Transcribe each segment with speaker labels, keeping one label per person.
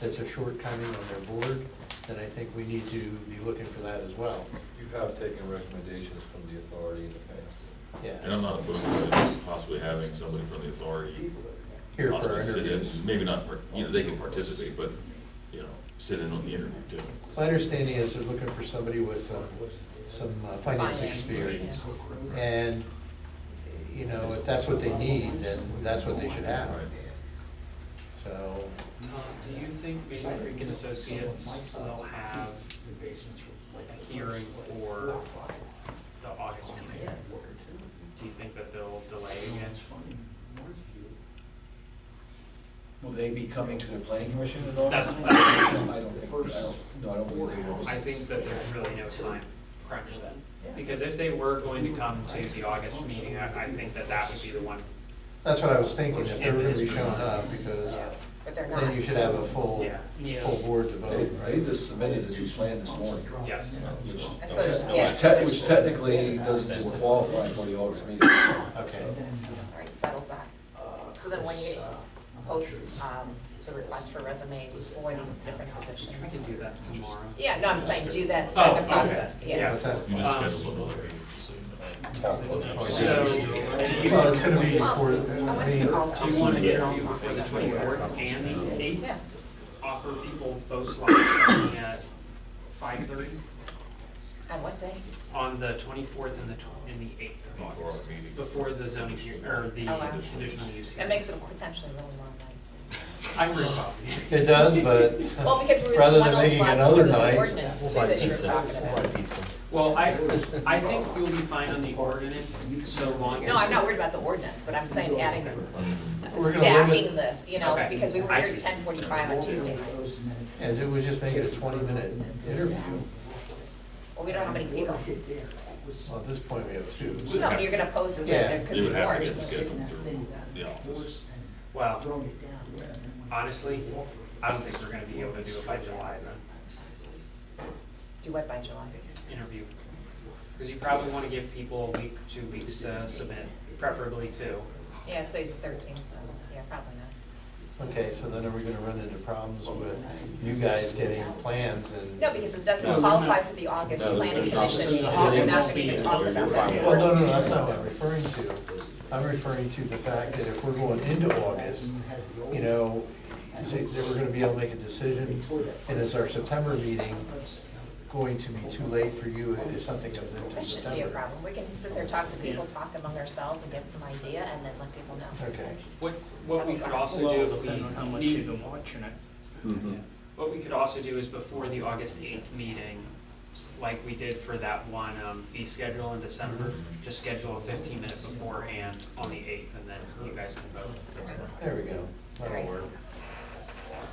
Speaker 1: that's a shortcoming on their board, then I think we need to be looking for that as well.
Speaker 2: You have taken recommendations from the authority in the past.
Speaker 3: And I'm
Speaker 1: Yeah.
Speaker 3: not opposed to possibly having somebody from the authority
Speaker 1: Here for our
Speaker 3: possibly sit in,
Speaker 1: interviews.
Speaker 3: maybe not, par- you know, they can participate, but, you know, sit in on the interview too.
Speaker 1: My understanding is they're looking for somebody with some, some uh, finance
Speaker 4: Finance,
Speaker 1: experience.
Speaker 4: yeah.
Speaker 1: And, you know, if that's what they need, then that's what they should have.
Speaker 3: Right.
Speaker 1: So,
Speaker 4: Tom, do you think Mason Creek and Associates will have a hearing for the August meeting? Do you think that they'll delay again?
Speaker 5: Will they be coming to the planning commission at all?
Speaker 4: That's-
Speaker 5: I don't think, I don't, no, I don't believe they will.
Speaker 4: I think that there's really no time crunch then, because if they were going to come to the August meeting, I, I think that that would be the one.
Speaker 1: that's what I was thinking, if they were gonna be showing up, because
Speaker 6: But they're not.
Speaker 1: then you should have a full,
Speaker 4: Yeah.
Speaker 1: full board to
Speaker 5: They,
Speaker 1: vote,
Speaker 5: they
Speaker 1: right?
Speaker 5: just submitted a new plan this morning.
Speaker 4: Yes.
Speaker 5: Which
Speaker 6: And so,
Speaker 5: which
Speaker 6: yes.
Speaker 5: te- Which technically doesn't qualify for the August meeting.
Speaker 1: Okay.
Speaker 6: All right, settles that. So then when you post um, the request for resumes for these different
Speaker 4: We
Speaker 6: positions.
Speaker 4: can do that tomorrow.
Speaker 6: Yeah, no, I'm saying do that, start
Speaker 4: Oh,
Speaker 6: the
Speaker 4: okay.
Speaker 6: process, yeah.
Speaker 4: Yeah.
Speaker 1: What's that?
Speaker 3: You just
Speaker 4: Um,
Speaker 3: schedule another meeting, so you
Speaker 4: So, do you,
Speaker 1: Well, it's gonna
Speaker 4: do
Speaker 1: be before,
Speaker 6: I
Speaker 1: I
Speaker 6: want to
Speaker 1: mean,
Speaker 4: you want to
Speaker 6: get all
Speaker 4: interview
Speaker 6: talk
Speaker 4: before the
Speaker 6: about it.
Speaker 4: twenty-fourth and the eighth?
Speaker 6: Yeah,
Speaker 4: Offer people both slots starting at five-thirty
Speaker 6: on what day?
Speaker 4: on the twenty-fourth and the tw- and the eighth of
Speaker 3: know, before
Speaker 4: August.
Speaker 3: our meeting.
Speaker 4: before the zoning, hea- or the
Speaker 6: Oh, wow.
Speaker 4: conditional use hearing.
Speaker 6: That makes it a potentially really long night.
Speaker 4: I'm real coffee.
Speaker 1: it does, but uh,
Speaker 6: Well, because we
Speaker 1: rather
Speaker 6: were one
Speaker 1: than
Speaker 6: of those
Speaker 1: making
Speaker 6: slots for
Speaker 1: another
Speaker 6: this
Speaker 1: night,
Speaker 6: ordinance too that you were talking about.
Speaker 4: Well, I, I think you'll be fine on the ordinance so long as.
Speaker 6: No, I'm not worried about the ordinance, but I'm saying adding,
Speaker 1: We're gonna
Speaker 6: stacking
Speaker 1: limit-
Speaker 6: this, you know,
Speaker 4: Okay.
Speaker 6: because we were
Speaker 4: I
Speaker 6: here at
Speaker 4: see.
Speaker 6: ten forty-five on Tuesday night.
Speaker 1: as it would just make it a twenty-minute interview.
Speaker 6: Well, we don't have many people.
Speaker 1: Well, at this point, we have two.
Speaker 6: No, but you're gonna post, that
Speaker 1: Yeah.
Speaker 6: there could
Speaker 3: You
Speaker 6: be
Speaker 3: would have to get
Speaker 6: worse.
Speaker 3: scheduled through the office.
Speaker 4: Well, honestly, I don't think we're gonna be able to do it by July then,
Speaker 6: Do what by July?
Speaker 4: interview. Because you probably wanna give people a week, two weeks to submit, preferably two.
Speaker 6: Yeah, today's the thirteenth, so, yeah, probably not.
Speaker 1: Okay, so then are we gonna run into problems with you guys getting plans and?
Speaker 6: No, because it doesn't qualify for the August planning commission, meeting, so they're not gonna even talk about that. So
Speaker 1: Well,
Speaker 6: we're-
Speaker 1: no, no, that's not what I'm referring to. I'm referring to the fact that if we're going into August, you know, is it- that we're gonna be able to make a decision, and is our September meeting going to be too late for you if something comes into
Speaker 6: That shouldn't be a
Speaker 1: September?
Speaker 6: problem. We can sit there, talk to people, talk among ourselves and get some idea and then let people know.
Speaker 1: Okay.
Speaker 4: What, what we could also do if
Speaker 7: Depending on how
Speaker 4: we
Speaker 7: much you've
Speaker 4: need,
Speaker 7: been watching it.
Speaker 4: mm-hmm. what we could also do is before the August eighth meeting, s- like we did for that one, um, fee schedule in December, just schedule a fifteen minute beforehand on the eighth and then you guys can vote.
Speaker 1: There we go. That'll work.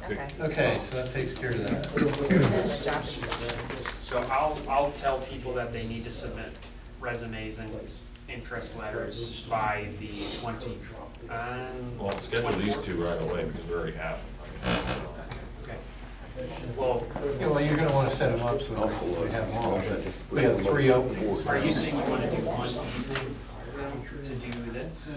Speaker 6: Okay.
Speaker 1: Okay, so that takes care of that.
Speaker 6: And the job description.
Speaker 4: So I'll, I'll tell people that they need to submit resumes and interest letters by the twenty, um.
Speaker 3: Well, schedule these
Speaker 4: 24th.
Speaker 3: two right away because we already have them.
Speaker 4: Okay. Well,
Speaker 1: Yeah, well, you're gonna wanna set them up so we- we have them all, but we have three openings.
Speaker 4: are you saying you wanna do one to do this?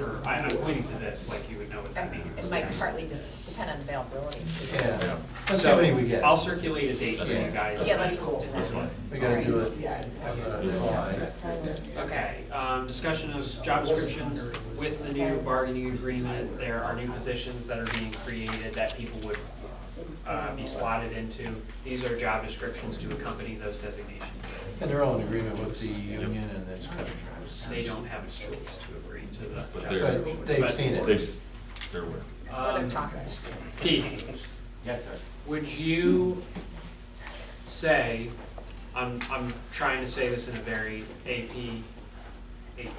Speaker 4: Or, I, I'm pointing to this, like you would know what that means.
Speaker 6: It might partly de- depend on availability.
Speaker 1: Yeah.
Speaker 4: So-
Speaker 1: Let's see how many we get.
Speaker 4: So I'll circulate a date to you guys.
Speaker 6: Yeah, let's just do
Speaker 3: That's fine.
Speaker 6: that.
Speaker 1: We gotta do it. uh,
Speaker 4: Okay, um, discussion of job descriptions with the new bargaining agreement, there are new positions that are being created that people would, uh, be slotted into. These are job descriptions to accompany those designations.
Speaker 1: And they're all in agreement with the union and its contract.
Speaker 4: They don't have a choice to agree to the.
Speaker 3: But
Speaker 4: job
Speaker 1: But
Speaker 3: they're-
Speaker 4: descriptions,
Speaker 1: they've
Speaker 4: but,
Speaker 1: seen
Speaker 3: They've,
Speaker 1: it.
Speaker 3: s- they're aware.
Speaker 6: Let them
Speaker 4: um,
Speaker 6: talk.
Speaker 4: Pete,
Speaker 8: Yes, sir.
Speaker 4: would you say, I'm, I'm trying to say this in a very AP, AP,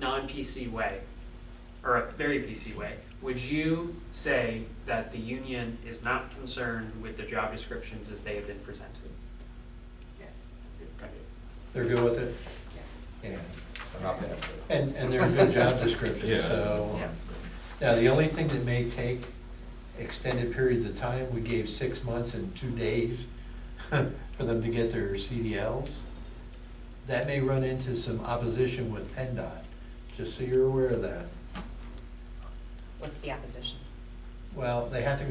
Speaker 4: non-PC way, or a very PC way, would you say that the union is not concerned with the job descriptions as they have been presented?
Speaker 8: Yes.
Speaker 4: Okay.
Speaker 1: They're good with it?
Speaker 8: Yes.
Speaker 1: Yeah.
Speaker 2: I'm not bad.
Speaker 1: And, and they're a good job description,
Speaker 3: Yeah.
Speaker 1: so.
Speaker 4: Yeah.
Speaker 1: Now, the only thing that may take extended periods of time, we gave six months and two days for them to get their CDLs. That may run into some opposition with PennDOT, just so you're aware of that.
Speaker 6: What's the opposition?
Speaker 1: Well, they have to go